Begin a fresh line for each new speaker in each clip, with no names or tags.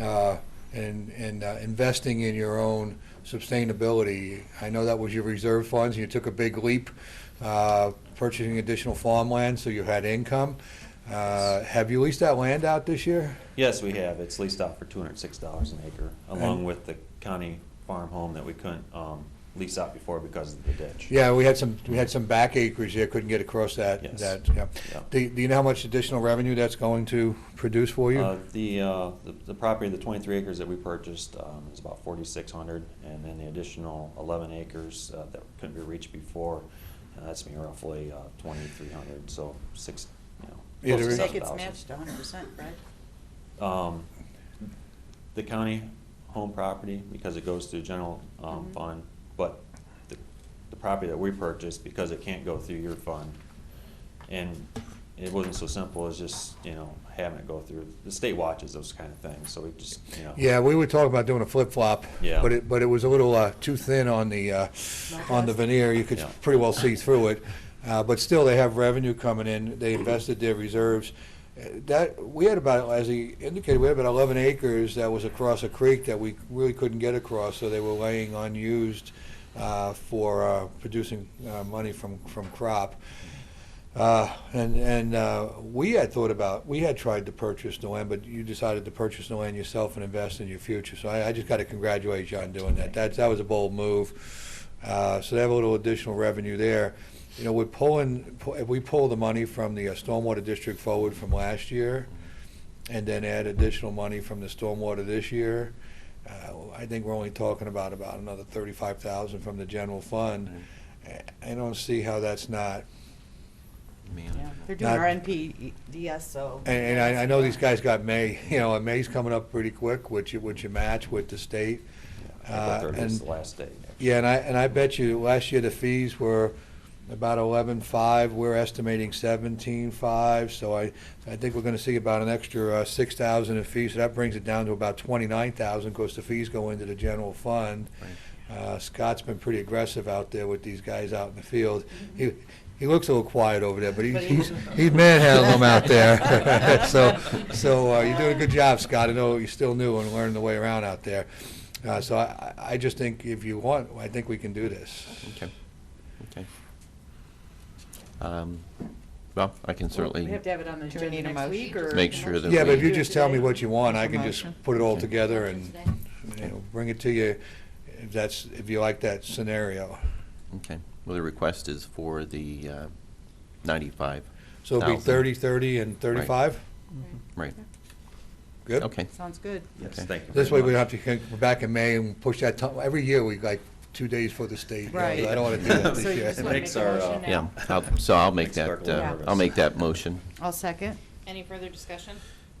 uh, and, and uh, investing in your own sustainability. I know that was your reserve funds, and you took a big leap, uh, purchasing additional farmland, so you had income. Uh, Have you leased that land out this year?
Yes, we have. It's leased out for two hundred and six dollars an acre, along
And-
with the county farm home that we couldn't, um, lease out before because of the ditch.
Yeah, we had some, we had some back acreage there, couldn't get across that,
Yes.
that, yeah.
Yeah.
Do do you know how much additional revenue that's going to produce for
Uh,
you?
The, uh, the- the property, the 23 acres that we purchased um, is about 4,600, and then the additional 11 acres uh, that couldn't be reached before, uh, that's me roughly uh, 2,300, so six, you
Yeah, there
know, close
is-
to
That gets
7,000.
matched hundred percent, right?
Um, The county home property, because it goes to general um,
Mhm.
fund, but the the property that we purchased, because it can't go through your fund, and it wasn't so simple as just, you know, having it go through, the state watches those kind of things, so we just, you know.
Yeah, we were talking about doing a flip-flop.
Yeah.
But it, but it was a little uh, too thin on the, uh, on the veneer. You could
Yeah.
pretty well see through it. Uh, But still, they have revenue coming in. They invested their reserves. Uh, That, we had about, as he indicated, we had about 11 acres that was across a creek that we really couldn't get across, so they were laying unused uh, for uh, producing uh, money from, from crop. Uh, And, and uh, we had thought about, we had tried to purchase the land, but you decided to purchase the land yourself and invest in your future. So I, I just got to congratulate you on doing that. That, that was a bold move. Uh, So they have a little additional revenue there. You know, we're pulling, pu- if we pull the money from the uh, stormwater district forward from last year and then add additional money from the stormwater this year, uh, I think we're only talking about, about another 35,000 from the general fund. I I don't see how that's not
Yeah, They're doing
Not-
RNPDS, E so.
And, and I, I know these guys got May, you know, and May's coming up pretty quick, which you, which you match with the state.
April
Uh,
30 is
and-
the last day.
Yeah, and I, and I bet you, last year the fees were about eleven-five, we're estimating seventeen-five, so I, I think we're gonna see about an extra uh, six thousand in fees, so that brings it down to about twenty-nine thousand, because the fees go into the general fund. Uh, Scott's been pretty aggressive out there with these guys out in the field. He, he looks a little quiet over there, but he's,
But he-
he's he's manhandling them out there. So, so uh, you're doing a good job, Scott. I know you're still new and learning the way around out there. Uh, So I, I I just think if you want, I think we can do this.
Okay, okay. Um, Well, I can
We
certainly
have to have it on the
Do we
agenda
need a
next week,
motion?
or?
make sure that we...
Yeah, but if you
Do it
just tell me
today.
what you want, I
Make a
can just
motion.
put it all
Okay.
together and,
Today.
you know, bring it to you if that's, if you like that scenario.
Okay, well, the request is for the uh, 95.
So it'll be
Thousand.
thirty, thirty, and thirty-five?
Right,
Good?
okay,
Sounds good.
Yes,
Okay.
thank you.
This way we
very much.
don't have to come back in May and push that, ti- every year we like two days for the state. you know,
Right.
I don't want to do that
So you
this
just
year.
wanna Makes make a our, motion uh,
yeah, I'll- so I'll make
Makes Bert a
that,
little
uh,
nervous.
I'll make that motion.
I'll second.
Any further discussion?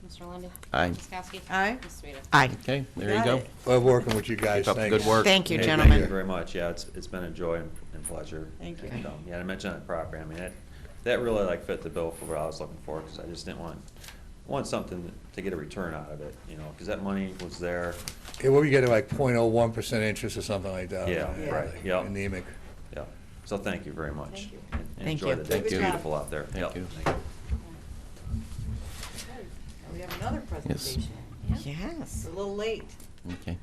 Mr. Lundey.
Aye.
Ms. Kowski.
Aye.
Ms. Sueda.
Aye.
Okay, there you
Got
go.
it.
Love working with you guys.
Keep up the
Thanks.
good work.
Thank you,
Hey, Thank you
gentlemen.
very much, yeah, it's, it's been a joy and and pleasure.
Thank you.
And, um, Yeah, to mention that property, I mean, that, that really like fit the bill for what I was looking for, because I just didn't want, I want something to get a return out of it, you know, because that money was there,
Yeah, what were you getting, like 0.01% interest or something like that?
Yeah,
Yeah. right,
yeah.
Anemic.
yeah. So thank you very much.
Thank you.
And- and
Thank you.
Enjoy the day,
Thank
it's
you.
beautiful out there.
Thank
Yep.
you.
We have another presentation. It's
Yes.
a little late.
Okay.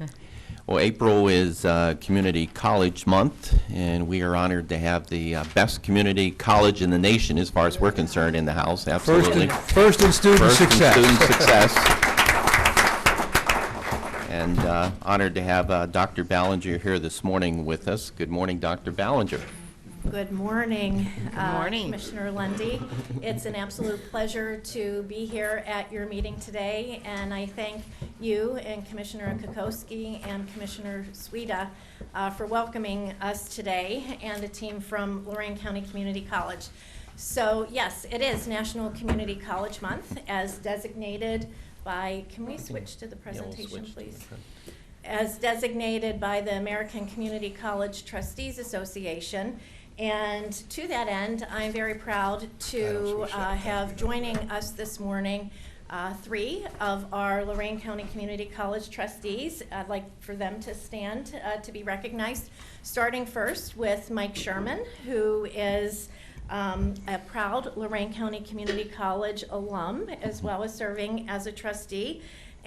Well, April is uh, Community College Month, and we are honored to have the uh, best community college in the nation, as far as we're concerned, in the house,
First
absolutely.
in, first in student
First in
success.
student success. And uh, honored to have uh, Dr. Ballinger here this morning with us. Good morning, Dr. Ballinger.
Good morning. uh,
morning.
Commissioner Lundy. It's an absolute pleasure to be here at your meeting today, and I thank you and Commissioner Kokoski and Commissioner Sueda uh, for welcoming us today, and a team from Lorraine County Community College. So yes, it is National Community College Month, as designated by, can we switch to the presentation, please? as designated by the American Community College Trustees Association. And to that end, I'm very proud to uh, have joining us this morning uh, three of our Lorraine County Community College trustees. I'd like for them to stand uh, to be recognized, starting first with Mike Sherman, who is um, a proud Lorraine County Community College alum, as well as serving as a trustee